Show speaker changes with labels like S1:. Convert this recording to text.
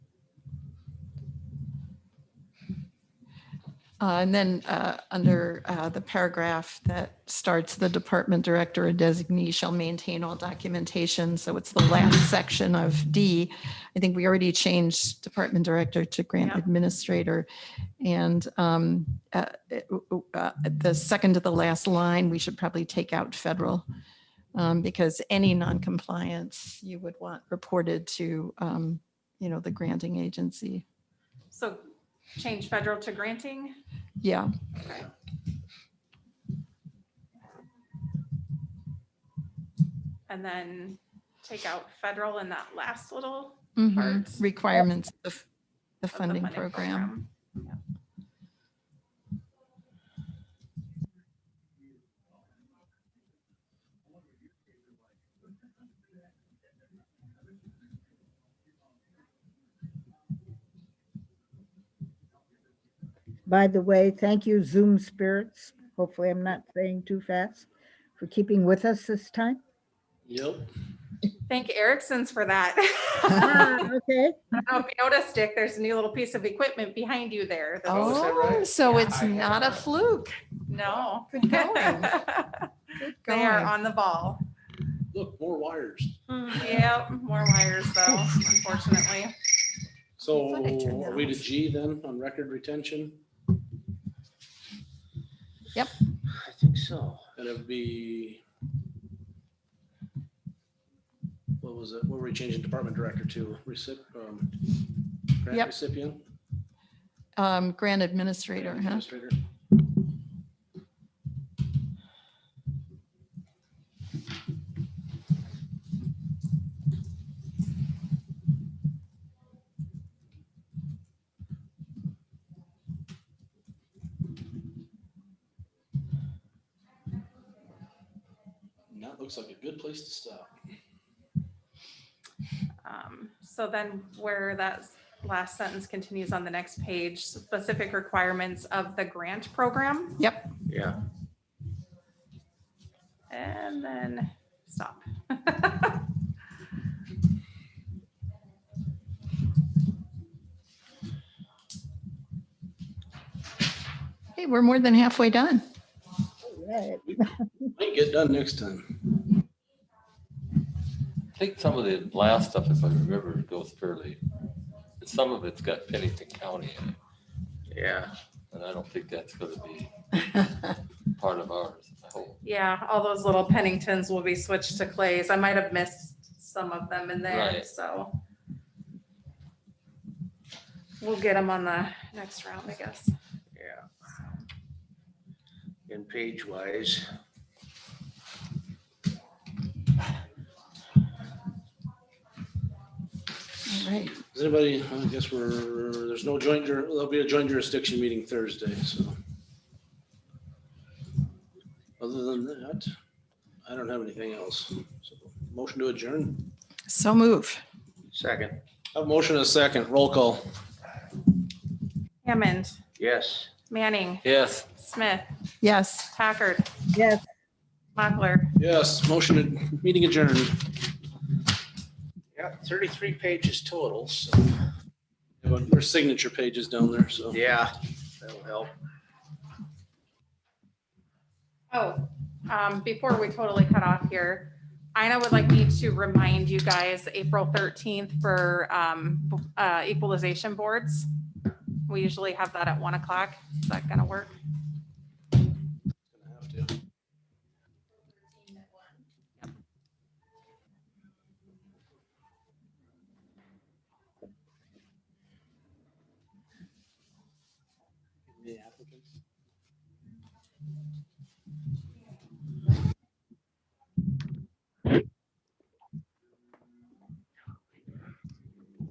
S1: Uh, And then uh, under uh, the paragraph that starts, the department director or designee shall maintain all documentation. So it's the last section of D. I think we already changed department director to grant
S2: Yeah.
S1: administrator. And um, uh, uh, the second to the last line, we should probably take out federal um, because any noncompliance you would want reported to, um, you know, the granting agency.
S2: So change federal to granting?
S1: Yeah.
S2: Okay. And then take out federal in that last little
S1: Mhm.
S2: parts of
S1: requirements of the
S2: the
S1: funding program.
S3: By the way, thank you Zoom spirits. Hopefully I'm not saying too fast for keeping with us this time.
S4: Yep.
S2: Thank Erickson's for that.
S3: Ah, Okay,
S2: I hope you noticed, Dick, there's a new little piece of equipment behind you there. that was-
S1: Oh, so it's
S4: Yeah.
S1: not a fluke.
S2: No.
S1: Good going. Good
S2: They are
S1: going. Hmm.
S2: on the ball.
S4: Look, more wires.
S2: Yep, more wires though, unfortunately.
S4: So
S1: thought I turned
S4: are
S1: that
S4: we to
S1: off.
S4: G then on record retention?
S1: Yep.
S4: I think so. And it'd be. What was it? What were we changing department director to? Recip, um, grant
S1: Yep.
S4: recipient?
S1: Um, grant administrator, huh?
S4: Administrator. And That looks like a good place to stop.
S2: Um, So then where that last sentence continues on the next page, specific requirements of the grant program.
S1: Yep.
S5: Yeah.
S2: And then stop.
S1: Hey, we're more than halfway done.
S3: all right.
S4: Might get done next time.
S5: I think some of the last stuff, if I remember, goes fairly, some of it's got Pennington County in it. Yeah. And I don't think that's gonna be part of ours, I hope.
S2: Yeah, all those little Penningtons will be switched to clays. I might have missed some of them in there,
S5: Right.
S2: so. We'll get them on the next round, I guess.
S6: Yeah. And page wise,
S1: All right.
S4: Does anybody, I guess we're, there's no joint, jur- there'll be a joint jurisdiction meeting Thursday, so. Other than that, I don't have anything else. So, Motion to adjourn.
S1: So move.
S6: second,
S4: A motion and a second, roll call.
S2: Hammond,
S6: yes.
S2: Manning,
S5: Yes.
S2: Smith,
S1: Yes.
S2: Packard,
S3: Yes,
S2: Mochler.
S4: Yes, motion, and meeting adjourned.
S6: Yeah, thirty-three pages total, so,
S4: There's signature pages down there, so.
S6: yeah, that'll help.
S2: Oh, um, before we totally cut off here, Ina would like me to remind you guys, April thirteenth for, um, b- uh, equalization boards. We usually have that at one o'clock. Is that gonna work?